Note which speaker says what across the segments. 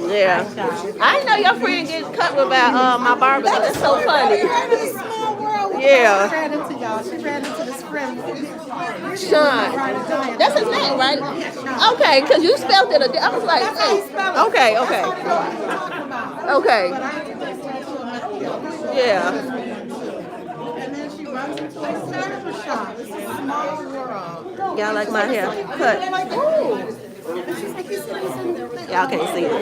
Speaker 1: Yeah. I know your friend gets covered by uh, my barber. That's so funny.
Speaker 2: Ran in a small world. when
Speaker 1: Yeah.
Speaker 2: She ran into y'all. She ran into this friend.
Speaker 1: Sean. That's his name, right? Okay, because you spelled it a di- I was like,
Speaker 2: That's how you
Speaker 1: hey.
Speaker 2: spell it.
Speaker 1: Okay,
Speaker 2: That's
Speaker 1: okay.
Speaker 2: how you know what I'm talking about.
Speaker 1: Okay.
Speaker 2: But I ain't just tattoo him. I don't know.
Speaker 1: yeah.
Speaker 2: And then she runs into a surfer shop. It's a small world.
Speaker 1: Y'all like my hair
Speaker 2: And
Speaker 1: cut.
Speaker 2: like, ooh. And she's like, you see what's in there?
Speaker 1: Y'all can't see it.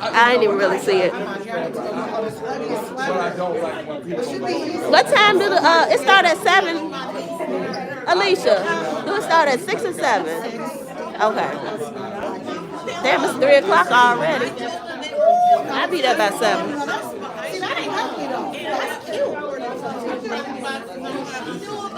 Speaker 1: I didn't even really see it. What time do the, uh, it start at seven? Alicia, do it start at six or seven? Okay. Damn, it's three o'clock already. I be there by seven.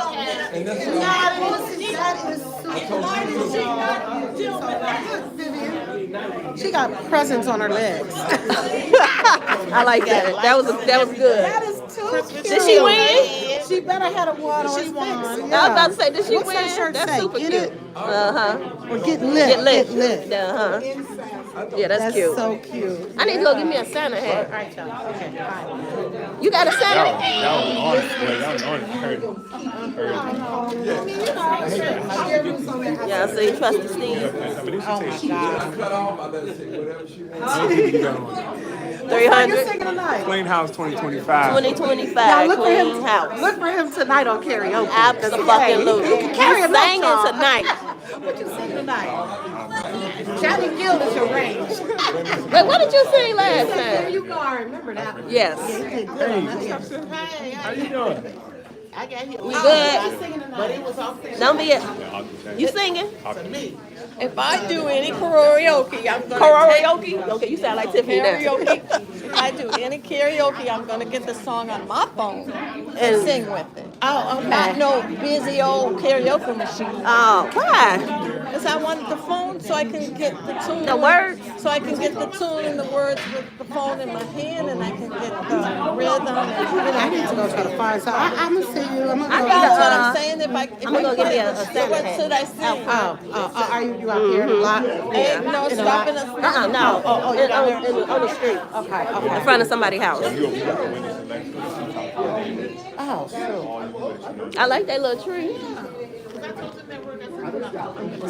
Speaker 2: She got presents on her legs.
Speaker 1: I like that. That was, that was good.
Speaker 2: That is too cute.
Speaker 1: Did she win?
Speaker 2: She better had a wad on. She won.
Speaker 1: I was about to say, did she
Speaker 2: What's
Speaker 1: win?
Speaker 2: that shirt
Speaker 1: That's
Speaker 2: say?
Speaker 1: super
Speaker 2: Get
Speaker 1: cute.
Speaker 2: it?
Speaker 1: Uh huh.
Speaker 2: Or get lit.
Speaker 1: Get lit.
Speaker 2: Get lit.
Speaker 1: Uh huh. Yeah, that's,
Speaker 2: That's
Speaker 1: cute.
Speaker 2: so cute.
Speaker 1: I need to go give me a Santa hat. All right, y'all. Okay, You got a Santa?
Speaker 3: Y'all, y'all was on it. Boy, y'all was on it. I heard it.
Speaker 1: Yeah, so you trust the sneeze.
Speaker 3: Somebody should say she
Speaker 4: Cut off, I let her take whatever she wants.
Speaker 2: You're
Speaker 1: 300,
Speaker 2: singing tonight.
Speaker 5: Plain House 2025.
Speaker 1: 2025,
Speaker 2: look for him.
Speaker 1: Queen's House.
Speaker 2: Look for him tonight on karaoke.
Speaker 1: Absolutely.
Speaker 2: He can carry a
Speaker 1: He's
Speaker 2: love
Speaker 1: singing
Speaker 2: song.
Speaker 1: tonight.
Speaker 2: What you singing tonight? Johnny Gill is your range.
Speaker 1: Wait, what did you sing last
Speaker 2: There
Speaker 1: time?
Speaker 2: you go. I remember that. one.
Speaker 1: Yes.
Speaker 2: He did good on that.
Speaker 3: How you doing?
Speaker 6: I got hit.
Speaker 1: We
Speaker 2: He's
Speaker 1: good?
Speaker 2: singing tonight.
Speaker 6: It was off the
Speaker 1: Don't be a, you singing?
Speaker 7: If I do any karaoke, I'm gonna
Speaker 1: Karaoke? Okay, you sound like
Speaker 7: take
Speaker 1: Tiffany now.
Speaker 7: karaoke. I do any karaoke, I'm gonna get the song on my phone and sing with it.
Speaker 1: Oh,
Speaker 7: Not
Speaker 1: okay.
Speaker 7: no busy old karaoke machine. Uh,
Speaker 1: Oh, why?
Speaker 7: Cause I wanted the phone so I can get the tune.
Speaker 1: The words?
Speaker 7: So I can get the tune and the words with the phone in my hand and I can get the rhythm. And,
Speaker 2: I need to go to the fire. So I, I'm gonna see you. I'm
Speaker 1: I
Speaker 2: gonna go.
Speaker 1: got
Speaker 7: That's what
Speaker 1: Uh,
Speaker 7: I'm saying. If I, if
Speaker 1: I'm gonna
Speaker 7: I
Speaker 1: go get
Speaker 7: could,
Speaker 1: me a- a
Speaker 7: so
Speaker 1: Santa
Speaker 7: what
Speaker 1: hat.
Speaker 7: should I sing?
Speaker 2: Oh, oh, oh, are you, you out there in the lot?
Speaker 7: Ain't no
Speaker 2: In the lot?
Speaker 7: stopping us.
Speaker 1: Uh-uh, no.
Speaker 2: Oh, oh, you're
Speaker 1: In-
Speaker 2: down
Speaker 1: on-
Speaker 2: there?
Speaker 1: in- On the street,
Speaker 2: Okay,
Speaker 1: in
Speaker 2: okay.
Speaker 1: front of somebody's house.
Speaker 2: Oh, shoot.
Speaker 1: I like that little tree.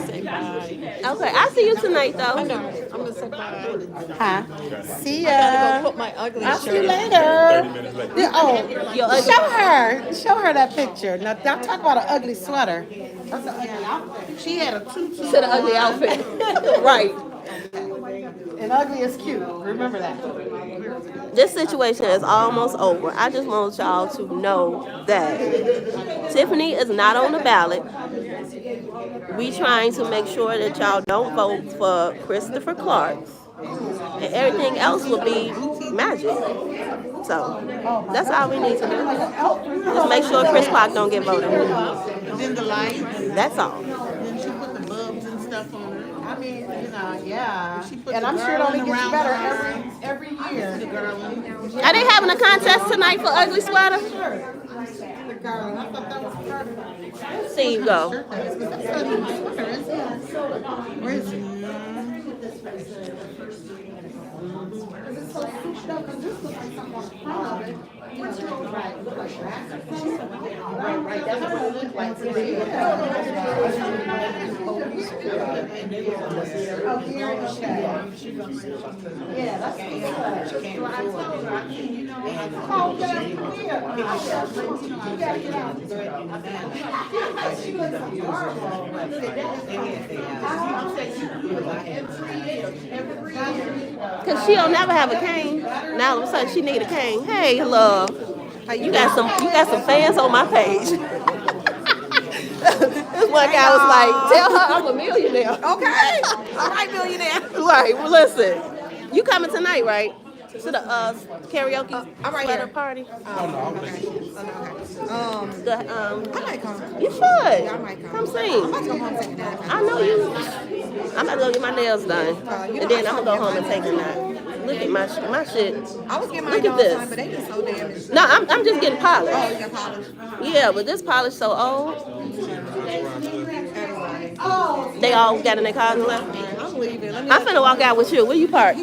Speaker 1: Okay, I'll see you tonight, though.
Speaker 7: I'm gonna
Speaker 1: Uh-uh.
Speaker 7: say bye.
Speaker 2: Huh? See
Speaker 7: I gotta
Speaker 2: ya.
Speaker 7: go put my ugly
Speaker 2: I'll see you
Speaker 7: shirt on.
Speaker 2: later.
Speaker 3: minutes later.
Speaker 2: Yeah, oh,
Speaker 1: Your ugly-
Speaker 2: show her, show her that picture. Now, don't talk about an ugly sweater. That's an ugly outfit. She had a tutu.
Speaker 1: To the ugly outfit. right.
Speaker 2: And ugly is cute. Remember that.
Speaker 1: This situation is almost over. I just want y'all to know that Tiffany is not on the ballot. We trying to make sure that y'all don't vote for Christopher Clark. And everything else will be magic. So that's all we need to do. Just make sure Chris Clark don't get voted.
Speaker 6: Then the lights,
Speaker 1: That's all.
Speaker 6: then she put the bulbs and stuff on her.
Speaker 2: I mean, you know, yeah.
Speaker 6: She put
Speaker 2: And
Speaker 6: the
Speaker 2: I'm sure it only
Speaker 6: garland around
Speaker 2: gets better
Speaker 6: her.
Speaker 2: every, every
Speaker 6: The
Speaker 2: year.
Speaker 6: garland.
Speaker 1: Are they having a contest tonight for ugly sweater?
Speaker 2: Sure. The garland, I thought that was perfect.
Speaker 1: See you go.
Speaker 2: Shirt that is, 'cause that's not even my sweater, is it? Where is it?
Speaker 1: Cause she'll never have a cane. Now all of a sudden she need a cane. Hey, love, you got some you got some fans on my page. this one guy was like, tell her I'm a millionaire. Okay, all right, millionaire. Right. Well, listen, you coming tonight, right? To the uh, karaoke
Speaker 2: I'm right
Speaker 1: sweater
Speaker 2: here. Oh,
Speaker 1: party.
Speaker 2: Um,
Speaker 1: The, um,
Speaker 2: I might come.
Speaker 1: you should
Speaker 2: I might come.
Speaker 1: come
Speaker 2: I
Speaker 1: sing.
Speaker 2: might go home and take a nap. Uh,
Speaker 1: I know you. I'm about to go get my nails done, and then I'm gonna go home and take a nap. Look at my sh- my shit.
Speaker 2: I was getting
Speaker 1: Look
Speaker 2: mine
Speaker 1: at
Speaker 2: all the
Speaker 1: this.
Speaker 2: time, but they just so damaged.
Speaker 1: No, I'm, I'm just getting
Speaker 2: Oh,
Speaker 1: polished.
Speaker 2: your polish.
Speaker 1: Yeah, but this polish so old,
Speaker 2: Anyway,
Speaker 1: they all got in their cars and left.
Speaker 2: I'm leaving. Let me
Speaker 1: I'm finna walk out with you. Where you park?